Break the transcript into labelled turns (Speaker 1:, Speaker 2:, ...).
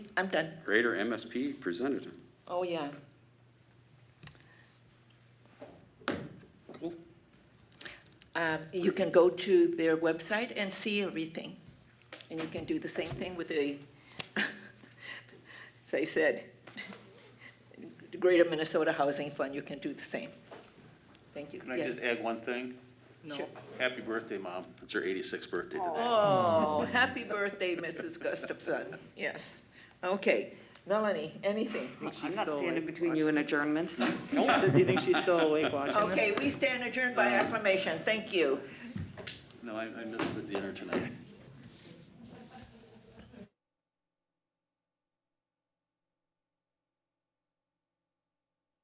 Speaker 1: I'm done.
Speaker 2: greater MSP presented.
Speaker 1: Oh, yeah.
Speaker 2: Cool.
Speaker 1: Um, You can go to their website and see everything. And you can do the same thing with the, as I said, the Greater Minnesota Housing Fund, you can do the same. Thank you.
Speaker 3: Can I
Speaker 1: Yes.
Speaker 3: just add one thing?
Speaker 1: No.
Speaker 3: Happy birthday, Mom. It's her 86th birthday today.
Speaker 1: Oh, happy birthday, Mrs. Gustafson. Yes. Okay. Melanie, anything?
Speaker 4: I'm not standing between you and adjournment.
Speaker 5: So do you think she's still awake watching?
Speaker 1: Okay, we stand adjourned by acclamation. Thank you.
Speaker 3: No, I I missed the dinner tonight.